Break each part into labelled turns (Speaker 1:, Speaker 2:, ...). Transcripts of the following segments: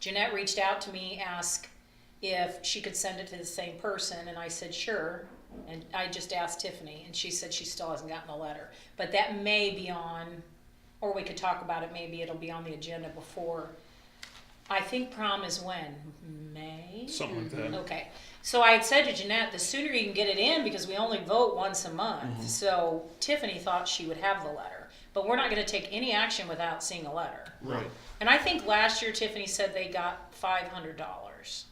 Speaker 1: Jeanette reached out to me, asked if she could send it to the same person, and I said, sure. And I just asked Tiffany, and she said she still hasn't gotten a letter. But that may be on, or we could talk about it, maybe it'll be on the agenda before. I think prom is when? May?
Speaker 2: something like that.
Speaker 1: Okay, so I had said to Jeanette, the sooner you can get it in, because we only vote once a month. So Tiffany thought she would have the letter, but we're not gonna take any action without seeing a letter.
Speaker 2: Right.
Speaker 1: And I think last year Tiffany said they got five hundred dollars.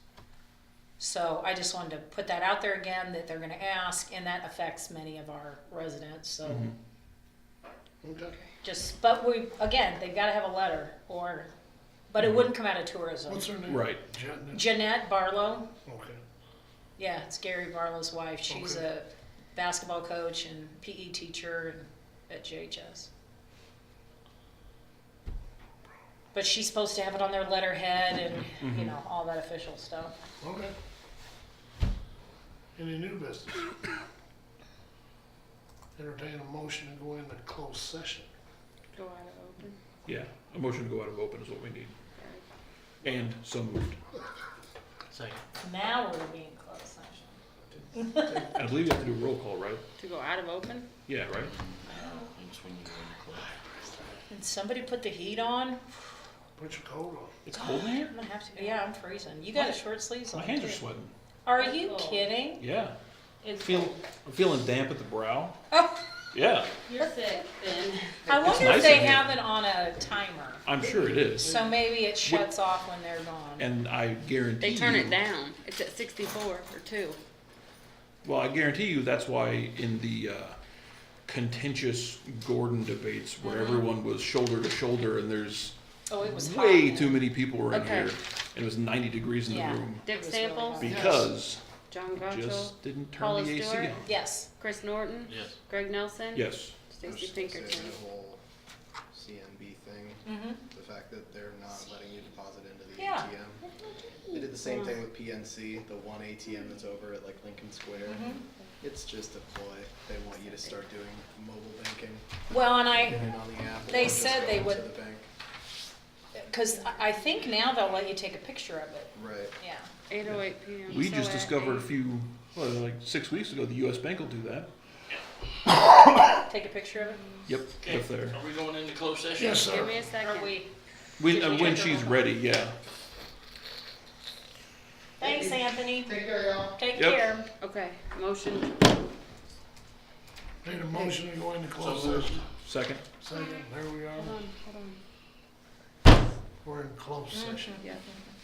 Speaker 1: So I just wanted to put that out there again, that they're gonna ask, and that affects many of our residents, so.
Speaker 2: Mm-hmm.
Speaker 3: Okay.
Speaker 1: Just, but we, again, they've gotta have a letter, or, but it wouldn't come out of tourism.
Speaker 3: What's her name?
Speaker 2: Right.
Speaker 3: Jen-
Speaker 1: Jeanette Barlow.
Speaker 3: Okay.
Speaker 1: Yeah, it's Gary Barlow's wife. She's
Speaker 3: Okay.
Speaker 1: a basketball coach and PE teacher and- at JHS. But she's supposed to have it on their letterhead and you
Speaker 2: Mm-hmm.
Speaker 1: know all that official stuff.
Speaker 3: Okay. Any new business? Entertain a motion to go into closed session.
Speaker 4: Go out of open.
Speaker 2: Yeah. A motion to go out of open is what we need. And so moved.
Speaker 5: Second.
Speaker 1: Now we're being closed session.
Speaker 2: And I believe you have to do a roll call, right?
Speaker 4: To go out of open?
Speaker 2: Yeah, right?
Speaker 5: It's when you go in close.
Speaker 1: And somebody put the heat on.
Speaker 3: Put your coat on.
Speaker 2: It's cold in here?
Speaker 1: I'm gonna have to. Yeah, I'm freezing. You got a short sleeves on.
Speaker 2: My hands are
Speaker 1: too.
Speaker 2: sweating.
Speaker 1: Are you kidding?
Speaker 2: Yeah.
Speaker 6: It's
Speaker 2: Feel, I'm feeling damp at the brow.
Speaker 1: Oh,
Speaker 2: Yeah,
Speaker 6: you're sick, then.
Speaker 1: I wonder if
Speaker 2: nice
Speaker 1: they
Speaker 2: in here.
Speaker 1: have it on a timer,
Speaker 2: I'm sure it is.
Speaker 1: so maybe it shuts off when they're gone.
Speaker 2: And I guarantee
Speaker 4: They turn
Speaker 2: you-
Speaker 4: it down. It's at sixty-four or two.
Speaker 2: Well, I guarantee you that's why in the uh, contentious Gordon debates where everyone was shoulder to shoulder and there's
Speaker 1: oh, it was
Speaker 2: way
Speaker 1: hot.
Speaker 2: too many people were in
Speaker 4: Okay.
Speaker 2: here and it was 90 degrees in
Speaker 1: Yeah.
Speaker 2: the room
Speaker 4: Dick
Speaker 1: was really
Speaker 4: Samples,
Speaker 1: hot.
Speaker 2: because
Speaker 4: John Gottschall,
Speaker 2: just didn't turn
Speaker 4: Paula
Speaker 2: the AC
Speaker 4: Stewart?
Speaker 2: on.
Speaker 1: Yes.
Speaker 4: Chris Norton,
Speaker 5: Yes.
Speaker 4: Greg Nelson,
Speaker 2: Yes.
Speaker 7: I was
Speaker 4: Stacy
Speaker 7: just gonna say
Speaker 4: Pinkerton.
Speaker 7: The whole CMB thing,
Speaker 1: Mm-hmm.
Speaker 7: the fact that they're not letting you deposit into the
Speaker 1: Yeah.
Speaker 7: ATM. They did the same thing with PNC, the one ATM that's over at like Lincoln Square.
Speaker 1: Mm-hmm.
Speaker 7: It's just a ploy. They want you to start doing mobile banking,
Speaker 1: Well, and
Speaker 7: get
Speaker 1: I,
Speaker 7: it on the app. or
Speaker 1: They
Speaker 7: just
Speaker 1: said
Speaker 7: go
Speaker 1: they
Speaker 7: into
Speaker 1: would-
Speaker 7: the bank.
Speaker 1: because I think now they'll let you take a picture of it.
Speaker 7: Right.
Speaker 1: Yeah.
Speaker 4: Eight oh eight PM.
Speaker 2: We
Speaker 4: So
Speaker 2: just
Speaker 4: at
Speaker 2: discovered a
Speaker 4: eight-
Speaker 2: few, well, like six weeks ago, the U.S. Bank will do that.
Speaker 1: Take a picture of it.
Speaker 2: Yep, if they're
Speaker 5: Are we going into closed session?
Speaker 3: Yes, sir.
Speaker 4: Give me a second.
Speaker 1: Are we?
Speaker 2: when,
Speaker 1: Did you
Speaker 2: uh, when
Speaker 1: check
Speaker 2: she's
Speaker 1: the-
Speaker 2: ready. Yeah.
Speaker 1: Thanks, Anthony. Take care, y'all. Take
Speaker 2: Yep.
Speaker 1: care.
Speaker 4: Okay, motion
Speaker 3: Need a motion to go into closed session.
Speaker 2: Second.
Speaker 3: Second, there we are.
Speaker 4: Hold on, hold on.
Speaker 3: We're in closed session.
Speaker 4: Yeah.